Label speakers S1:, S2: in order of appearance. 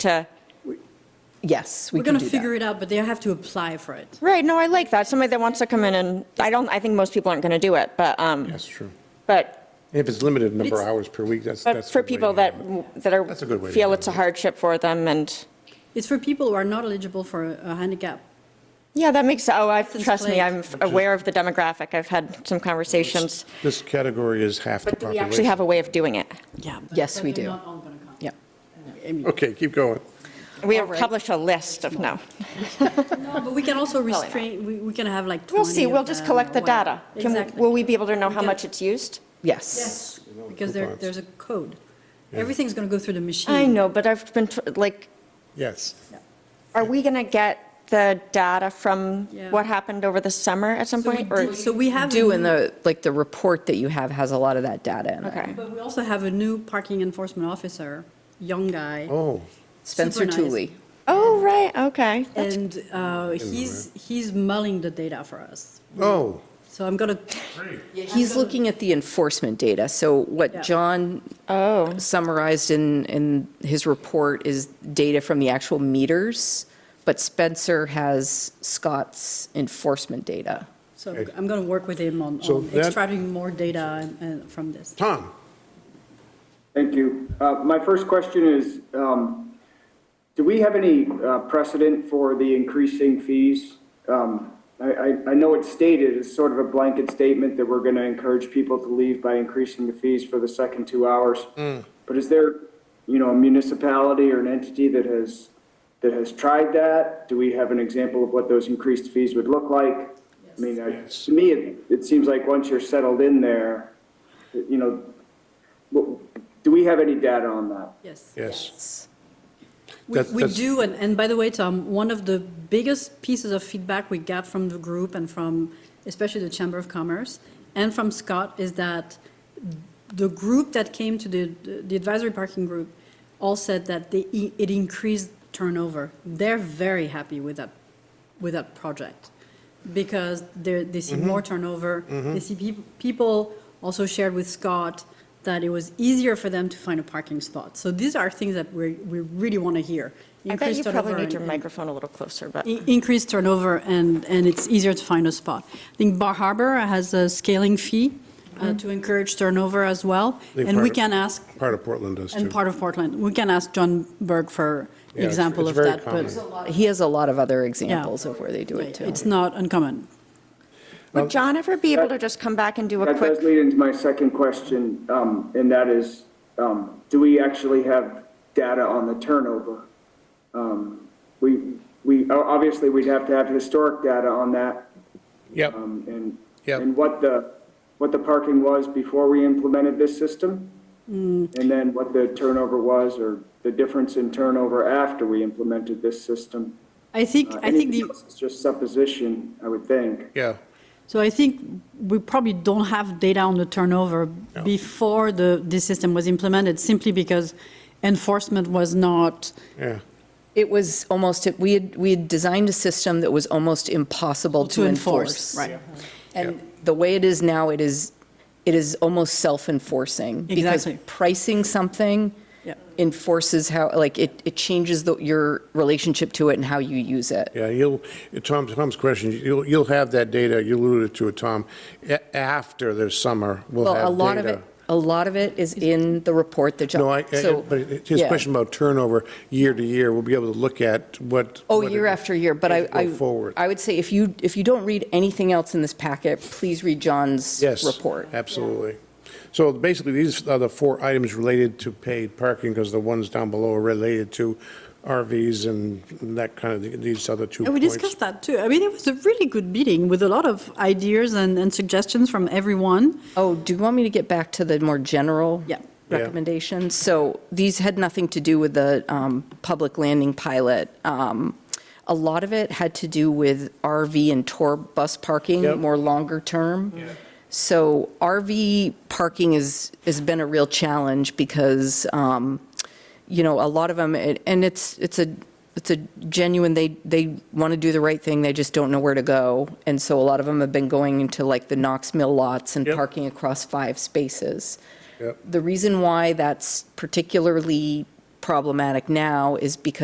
S1: to, yes, we
S2: We're
S1: can
S2: going
S1: do
S2: to
S1: that.
S2: figure it out, but they have to apply for it.
S1: Right, no, I like that. Somebody that wants to come in and, I don't, I think most people aren't going to do it, but, um,
S3: That's true.
S1: but,
S3: If it's limited number of
S2: It's-
S3: hours per week, that's,
S1: but
S3: that's.
S1: for
S3: the way
S1: people
S3: to
S1: that,
S3: handle
S1: that are,
S3: That's a good way to
S1: feel it's a
S3: handle it.
S1: hardship for them and,
S2: It's for people who are not eligible for a a handicap.
S1: yeah, that makes, oh, I've,
S2: License
S1: trust me,
S2: plate.
S1: I'm f- aware of the demographic. I've had some conversations.
S3: it. This category is half the
S1: But do we
S3: population.
S1: actually have a way of doing it?
S2: Yeah. but-
S4: Yes,
S2: but
S4: we
S2: they're
S4: do.
S2: not all gonna come.
S4: Yep.
S2: I mean-
S3: Okay, keep going.
S1: We have published a list of, no.
S2: No, But we can also
S1: not.
S2: restrain, we we can have like 20
S1: We'll see,
S2: of
S1: we'll just
S2: them
S1: collect
S2: or
S1: the
S2: whatever.
S1: data. Can-
S2: Exactly.
S1: Will we be able to know how
S2: Okay.
S1: much it's used?
S4: Yes.
S2: Yes, because there,
S3: coupons.
S2: there's a code. Everything's going to go through the machine.
S1: I know, but I've been, tr- like,
S3: Yes.
S1: are we going to get the data from
S2: Yeah.
S1: what happened over the summer at some
S2: So we
S1: point? or-
S2: do- So we have. a
S4: Do in
S2: new-
S4: the, like, the report that you have has a lot of that data in
S1: Okay.
S4: it.
S2: But we also have a new parking enforcement officer, young guy.
S3: Oh,
S4: Spencer
S2: Super nice.
S4: Tooley.
S1: Oh, right, okay. That's-
S2: And uh, he's, he's mulling the data for us.
S3: oh,
S2: So I'm going to,
S4: He's looking at the enforcement data. So
S2: Yeah.
S4: what John
S1: Oh,
S4: summarized in, in his report is data from the actual meters, but Spencer has Scott's enforcement data.
S2: so
S3: Okay.
S2: I'm going to work with him on
S3: So
S2: on
S3: that-
S2: extracting more data and- and from this.
S3: Tom,
S5: Thank you. Uh, My first question is, um, do we have any uh, precedent for the increasing fees? Um, I I- I know it's stated as sort of a blanket statement that we're going to encourage people to leave by increasing the fees for the second two hours. But is there, you know, a municipality or an entity that has, that has tried that? Do we have an example of what those increased fees would look like? I mean, I- to me, it it seems like once you're settled in there, you know, well, Do we have any data on that?
S2: Yes.
S3: yes.
S2: We
S3: That's-
S2: we
S3: that's-
S2: do, and, and by the way, Tom, one of the biggest pieces of feedback we got from the group and from, especially the Chamber of Commerce, and from Scott, is that the group that came to the, the advisory parking group all said that they, it increased turnover. They're very happy with that, with that project, because they, they see more turnover. They see peop- people also shared with Scott that it was easier for them to find a parking spot. So these are things that we, we really want to hear.
S1: I bet you probably
S2: Increased turnover
S1: need your
S2: and- E and-
S1: microphone a little closer, but.
S2: in- increased turnover and, and it's easier to find a spot. I think Bar Harbor has a scaling fee uh, to encourage turnover as well.
S3: Mm-hmm. think
S2: And we
S3: part of-
S2: can ask,
S3: Part of Portland does too.
S2: and part of Portland, we can ask John Berg for
S3: Yeah, it's-
S2: example
S3: it's
S2: of
S3: very
S2: that. but-
S3: common.
S4: He has a lot of other
S2: yeah.
S4: examples of where they do it too.
S2: It's not uncommon.
S1: Would John ever be able to just come back and do a
S5: That
S1: quick?
S5: does lead into my second question, um, and that is, um, do we actually have data on the turnover? Um, We, we, o- obviously, we'd have to have historic data on that,
S3: Yep,
S5: um, and,
S3: Yep.
S5: and what the, what the parking was before we implemented this system,
S2: Mm.
S5: and then what the turnover was, or the difference in turnover after we implemented this system.
S2: I think,
S5: Uh,
S2: I think
S5: anything
S2: the,
S5: else is Just supposition, I would think.
S3: yeah.
S2: so I think we probably don't have data on the turnover before the, this system was implemented, simply because enforcement was not,
S3: Yeah,
S4: It was almost, we had, we had designed a system that was almost impossible
S2: to
S4: to
S2: enforce,
S4: enforce.
S2: right?
S4: And the way it is now, it is, it is almost self-enforcing.
S2: Exactly.
S4: Because pricing something
S2: Yep.
S4: enforces how, like, it, it changes the- your relationship to it and how you use it.
S3: yeah, you'll, Tom, Tom's question, you'll, you'll have that data, you alluded to it, Tom, a- after the summer, we'll have
S4: Well,
S3: data.
S4: a lot of it, a lot of it is in the report that John.
S3: No, I, I-
S4: so-
S3: but it- his
S4: yeah.
S3: question about turnover, year to year, we'll be able to look at what.
S4: Oh,
S3: what it-
S4: year after year, but I,
S3: as we
S4: I.
S3: Go forward.
S4: I would say if you, if you don't read anything else in this packet, please read John's
S3: Yes.
S4: report.
S3: Absolutely. So basically, these are the four items related to paid parking, because the ones down below are related to RVs and that kind of, these other two
S2: And we
S3: points.
S2: discussed that too. I mean, it was a really good meeting with a lot of ideas and, and suggestions from everyone.
S4: Oh, do you want me to get back to the more general?
S2: Yeah.
S3: Yeah.
S4: Recommendations? So these had nothing to do with the um, public landing pilot. Um, A lot of it had to do with RV and tour bus
S3: Yep.
S4: parking, more longer term. So RV parking is, has been a real challenge because, um, you know, a lot of them, and it's, it's a, it's a genuine, they, they want to do the right thing, they just don't know where to go. And so a lot of them have been going into like the Knox Mill lots and
S3: Yep.
S4: parking across five spaces.
S3: Yep.
S4: The reason why that's particularly problematic now is because